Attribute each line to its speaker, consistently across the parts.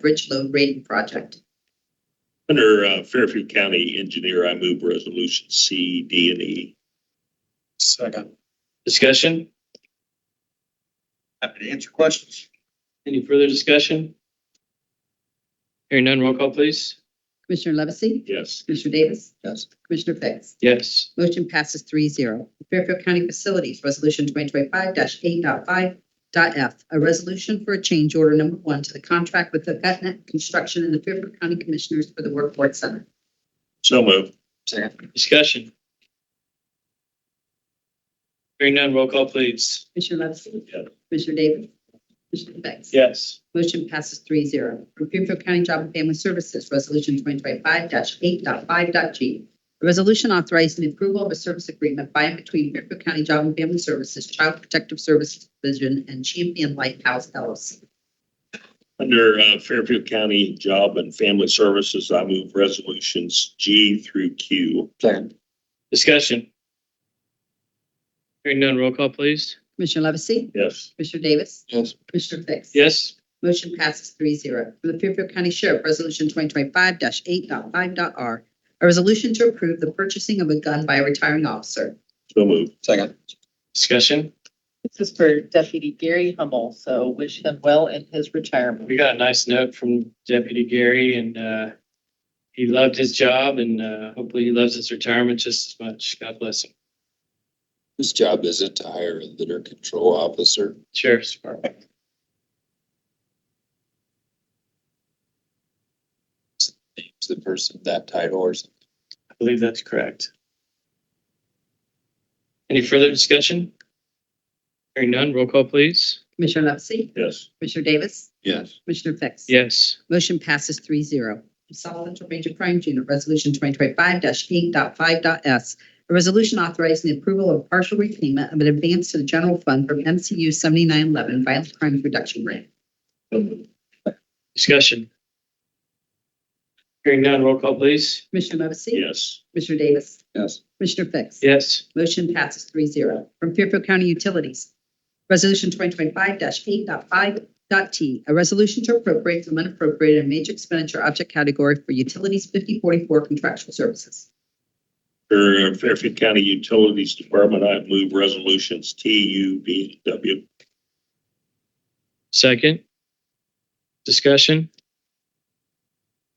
Speaker 1: Bridge Load Rating Project.
Speaker 2: Under uh, Fairfield County Engineer, I move resolution C, D, and E.
Speaker 3: Second.
Speaker 4: Discussion?
Speaker 3: Happy to answer questions.
Speaker 4: Any further discussion? Hearing none, roll call please.
Speaker 1: Commissioner Levesey?
Speaker 2: Yes.
Speaker 1: Commissioner Davis?
Speaker 3: Yes.
Speaker 1: Commissioner Fix?
Speaker 4: Yes.
Speaker 1: Motion passes three zero. Fairfield County Facilities Resolution twenty twenty five 85f a resolution for a change order number one to the contract with the Gutnet Construction and the Fairfield County Commissioners for the Workforce Center.
Speaker 2: So moved.
Speaker 3: Second.
Speaker 4: Discussion? Hearing none, roll call please.
Speaker 1: Commissioner Levesey?
Speaker 2: Yes.
Speaker 1: Commissioner Davis? Commissioner Fix?
Speaker 4: Yes.
Speaker 1: Motion passes three zero. From Fairfield County Job and Family Services, Resolution twenty twenty five 85g A resolution authorizing approval of a service agreement by and between Fairfield County Job and Family Services, Child Protective Services Division, and Champion Lighthouse LLC.
Speaker 2: Under uh, Fairfield County Job and Family Services, I move resolutions G through Q.
Speaker 3: Second.
Speaker 4: Discussion? Hearing none, roll call please.
Speaker 1: Commissioner Levesey?
Speaker 2: Yes.
Speaker 1: Commissioner Davis?
Speaker 3: Yes.
Speaker 1: Commissioner Fix?
Speaker 4: Yes.
Speaker 1: Motion passes three zero. From the Fairfield County Sheriff, Resolution twenty twenty five 85r R, a resolution to approve the purchasing of a gun by a retiring officer.
Speaker 2: So moved.
Speaker 3: Second.
Speaker 4: Discussion?
Speaker 5: This is for Deputy Gary Hummel, so wish him well in his retirement.
Speaker 4: We got a nice note from Deputy Gary and, uh, he loved his job and, uh, hopefully he loves his retirement just as much. God bless him.
Speaker 6: Whose job is it to hire a litter control officer?
Speaker 4: Sheriff's Department.
Speaker 6: Names the person that title or something?
Speaker 4: I believe that's correct. Any further discussion? Hearing none, roll call please.
Speaker 1: Commissioner Levesey?
Speaker 2: Yes.
Speaker 1: Commissioner Davis?
Speaker 6: Yes.
Speaker 1: Commissioner Fix?
Speaker 4: Yes.
Speaker 1: Motion passes three zero. Solid Major Crimes Unit Resolution twenty twenty five 85s A resolution authorizing the approval of partial repayment of an advance to the general fund from MCU seventy nine eleven Violent Crimes Reduction Grant.
Speaker 4: Discussion. Hearing none, roll call please.
Speaker 1: Commissioner Levesey?
Speaker 2: Yes.
Speaker 1: Commissioner Davis?
Speaker 3: Yes.
Speaker 1: Commissioner Fix?
Speaker 4: Yes.
Speaker 1: Motion passes three zero. From Fairfield County Utilities, Resolution twenty twenty five 85t A resolution to appropriate from unappropriated in major expenditure object category for utilities fifty forty four contractual services.
Speaker 2: Under uh, Fairfield County Utilities Department, I move resolutions T, U, V, W.
Speaker 4: Second. Discussion.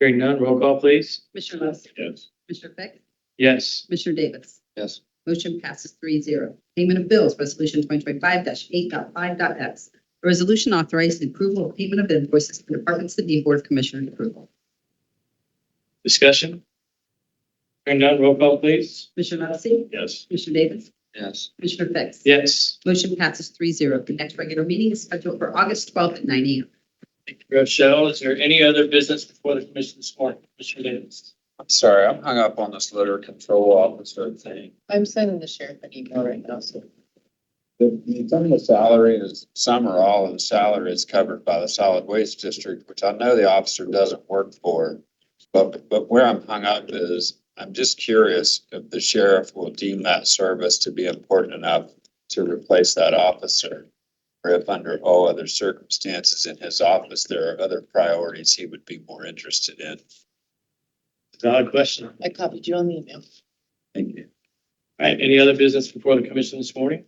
Speaker 4: Hearing none, roll call please.
Speaker 1: Commissioner Levesey?
Speaker 2: Yes.
Speaker 1: Commissioner Fix?
Speaker 4: Yes.
Speaker 1: Commissioner Davis?
Speaker 3: Yes.
Speaker 1: Motion passes three zero. Payment of bills, Resolution twenty twenty five 85x A resolution authorizing approval of payment of invoices for departments that need Board of Commissioners approval.
Speaker 4: Discussion. Hearing none, roll call please.
Speaker 1: Commissioner Levesey?
Speaker 2: Yes.
Speaker 1: Commissioner Davis?
Speaker 3: Yes.
Speaker 1: Commissioner Fix?
Speaker 4: Yes.
Speaker 1: Motion passes three zero. The next regular meeting is scheduled for August twelfth at nine AM.
Speaker 4: Thank you, Rochelle. Is there any other business before the commission this morning? Commissioner Davis.
Speaker 3: I'm sorry, I'm hung up on this litter control officer thing.
Speaker 5: I'm sending the sheriff an email right now, so.
Speaker 6: The, the some of the salary is, some or all of the salary is covered by the solid waste district, which I know the officer doesn't work for. But, but where I'm hung up is, I'm just curious if the sheriff will deem that service to be important enough to replace that officer. Or if under all other circumstances in his office, there are other priorities he would be more interested in.
Speaker 4: Valid question. All
Speaker 5: I copied you on the email.
Speaker 6: Thank you.
Speaker 4: right. Any other business before the commission this morning?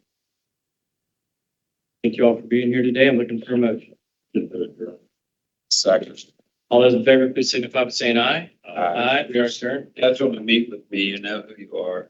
Speaker 4: Thank you all for being here today. I'm looking for a motion.
Speaker 6: Second.
Speaker 4: All those in favor, please signify by saying aye.
Speaker 6: Aye.
Speaker 4: We are adjourned.
Speaker 3: Schedule to meet with me, you know who you are.